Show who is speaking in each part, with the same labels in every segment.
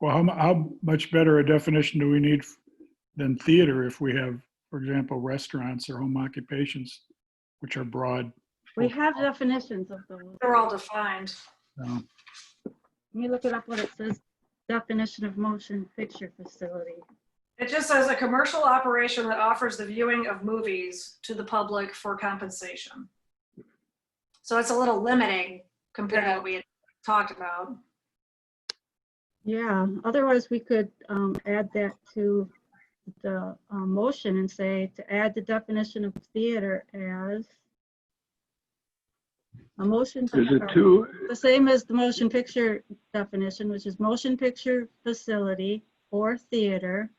Speaker 1: Well, how, mu- how much better a definition do we need than theater if we have, for example, restaurants or home occupations, which are broad?
Speaker 2: We have definitions of those.
Speaker 3: They're all defined.
Speaker 1: No.
Speaker 2: Let me look it up what it says. Definition of motion picture facility.
Speaker 3: It just says a commercial operation that offers the viewing of movies to the public for compensation. So it's a little limiting compared to what we had talked about.
Speaker 2: Yeah, otherwise we could um, add that to the uh, motion and say to add the definition of theater as a motion.
Speaker 4: Is it
Speaker 2: or-
Speaker 4: two,
Speaker 2: The same as the motion picture definition, which is motion picture facility or theater.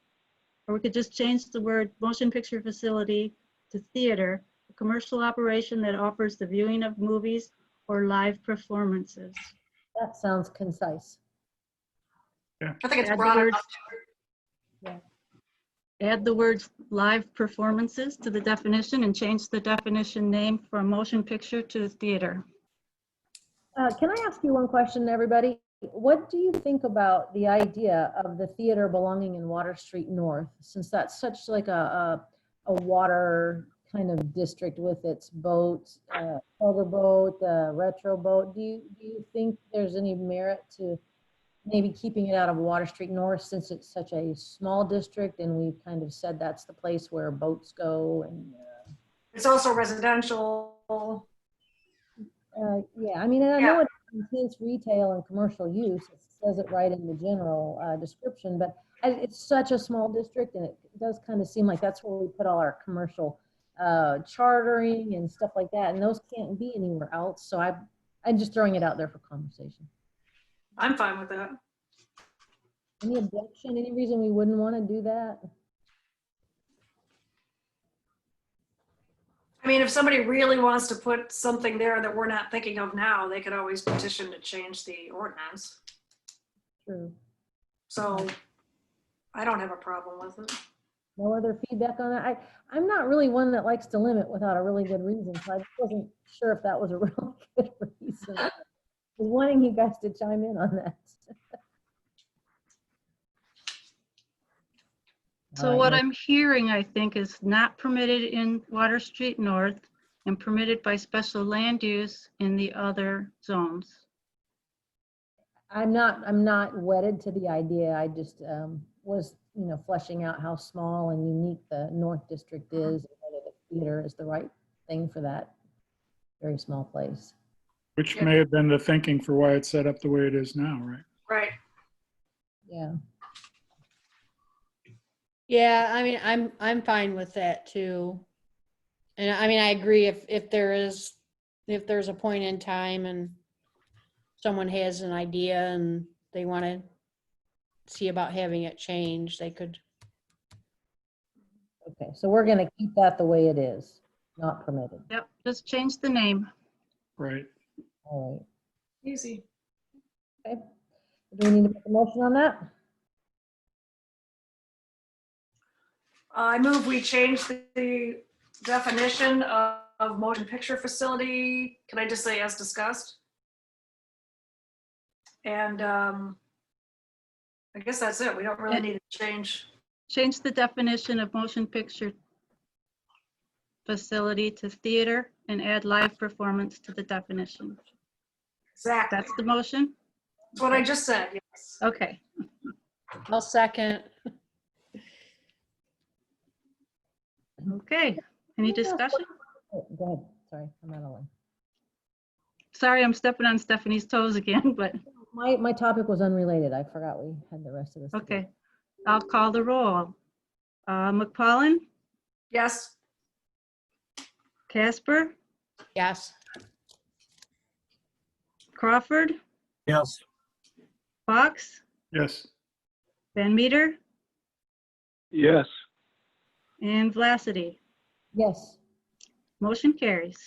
Speaker 2: Or we could just change the word motion picture facility to theater, a commercial operation that offers the viewing of movies or live performances.
Speaker 5: That sounds concise.
Speaker 3: I think it's
Speaker 2: Add the
Speaker 3: broad
Speaker 2: word-
Speaker 3: enough.
Speaker 2: Add the words live performances to the definition and change the definition name from motion picture to theater.
Speaker 5: Uh, Can I ask you one question, everybody? What do you think about the idea of the theater belonging in Water Street North? Since that's such like a, a, a water kind of district with its boats, uh, over boat, the retro boat, do you, do you think there's any merit to maybe keeping it out of Water Street North since it's such a small district and we've kind of said that's the place where boats go and uh,
Speaker 3: It's also residential.
Speaker 5: Uh, Yeah, I mean, and I
Speaker 3: Yeah.
Speaker 5: know it includes retail and commercial use. It says it right in the general uh, description, but I- it's such a small district and it does kind of seem like that's where we put all our commercial uh, chartering and stuff like that, and those can't be anywhere else. So I, I'm just throwing it out there for conversation.
Speaker 3: I'm fine with that.
Speaker 5: Any objection, any reason we wouldn't want to do that?
Speaker 3: I mean, if somebody really wants to put something there that we're not thinking of now, they could always petition to change the ordinance.
Speaker 5: True.
Speaker 3: So I don't have a problem with it.
Speaker 5: No other feedback on that? I, I'm not really one that likes to limit without a really good reason, so I just wasn't sure if that was a really good reason. I Was wanting you guys to chime in on that.
Speaker 2: So
Speaker 5: All
Speaker 2: what
Speaker 5: right,
Speaker 2: I'm hearing, I think, is not permitted in Water Street North and permitted by special land use in the other zones.
Speaker 5: I'm not, I'm not wedded to the idea. I just um, was, you know, fleshing out how small and unique the North District is, and whether the theater is the right thing for that very small place.
Speaker 1: Which may have been the thinking for why it's set up the way it is now, right?
Speaker 3: Right.
Speaker 5: Yeah.
Speaker 6: Yeah, I mean, I'm, I'm fine with that too. And I mean, I agree if, if there is, if there's a point in time and someone has an idea and they want to see about having it changed, they could,
Speaker 5: Okay, so we're gonna keep that the way it is, not permitted.
Speaker 2: Yep, just change the name.
Speaker 1: Right.
Speaker 5: All
Speaker 3: Easy.
Speaker 5: right, okay. Do we need to make a motion on that?
Speaker 3: I move we change the definition of of motion picture facility. Can I just say as discussed? And um, I guess that's it. We don't really need to change.
Speaker 2: Change the definition of motion picture facility to theater and add live performance to the definition.
Speaker 3: Exactly.
Speaker 2: That's the motion?
Speaker 3: That's what I just said, yes.
Speaker 2: Okay.
Speaker 6: I'll second.
Speaker 2: Okay. Any discussion?
Speaker 5: Oh, Go ahead, sorry, I'm out of line.
Speaker 2: Sorry, I'm stepping on Stephanie's toes again, but,
Speaker 5: My, my topic was unrelated, I forgot we had the rest of this. to do.
Speaker 2: okay. I'll call the roll. Uh, McPollin,
Speaker 3: Yes,
Speaker 2: Casper,
Speaker 6: Yes.
Speaker 2: Crawford,
Speaker 7: yes.
Speaker 2: Fox,
Speaker 1: Yes.
Speaker 2: Van Meter,
Speaker 4: yes.
Speaker 2: and Vlacity.
Speaker 5: Yes,
Speaker 2: Motion carries.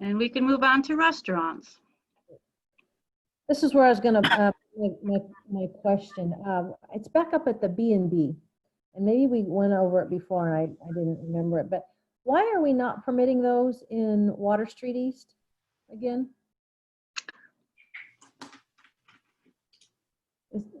Speaker 2: And we can move on to restaurants.
Speaker 5: this is where I was gonna, uh, my, my, my question, um, it's back up at the B and B. And maybe we went over it before and I, I didn't remember it, but why are we not permitting those in Water Street East again?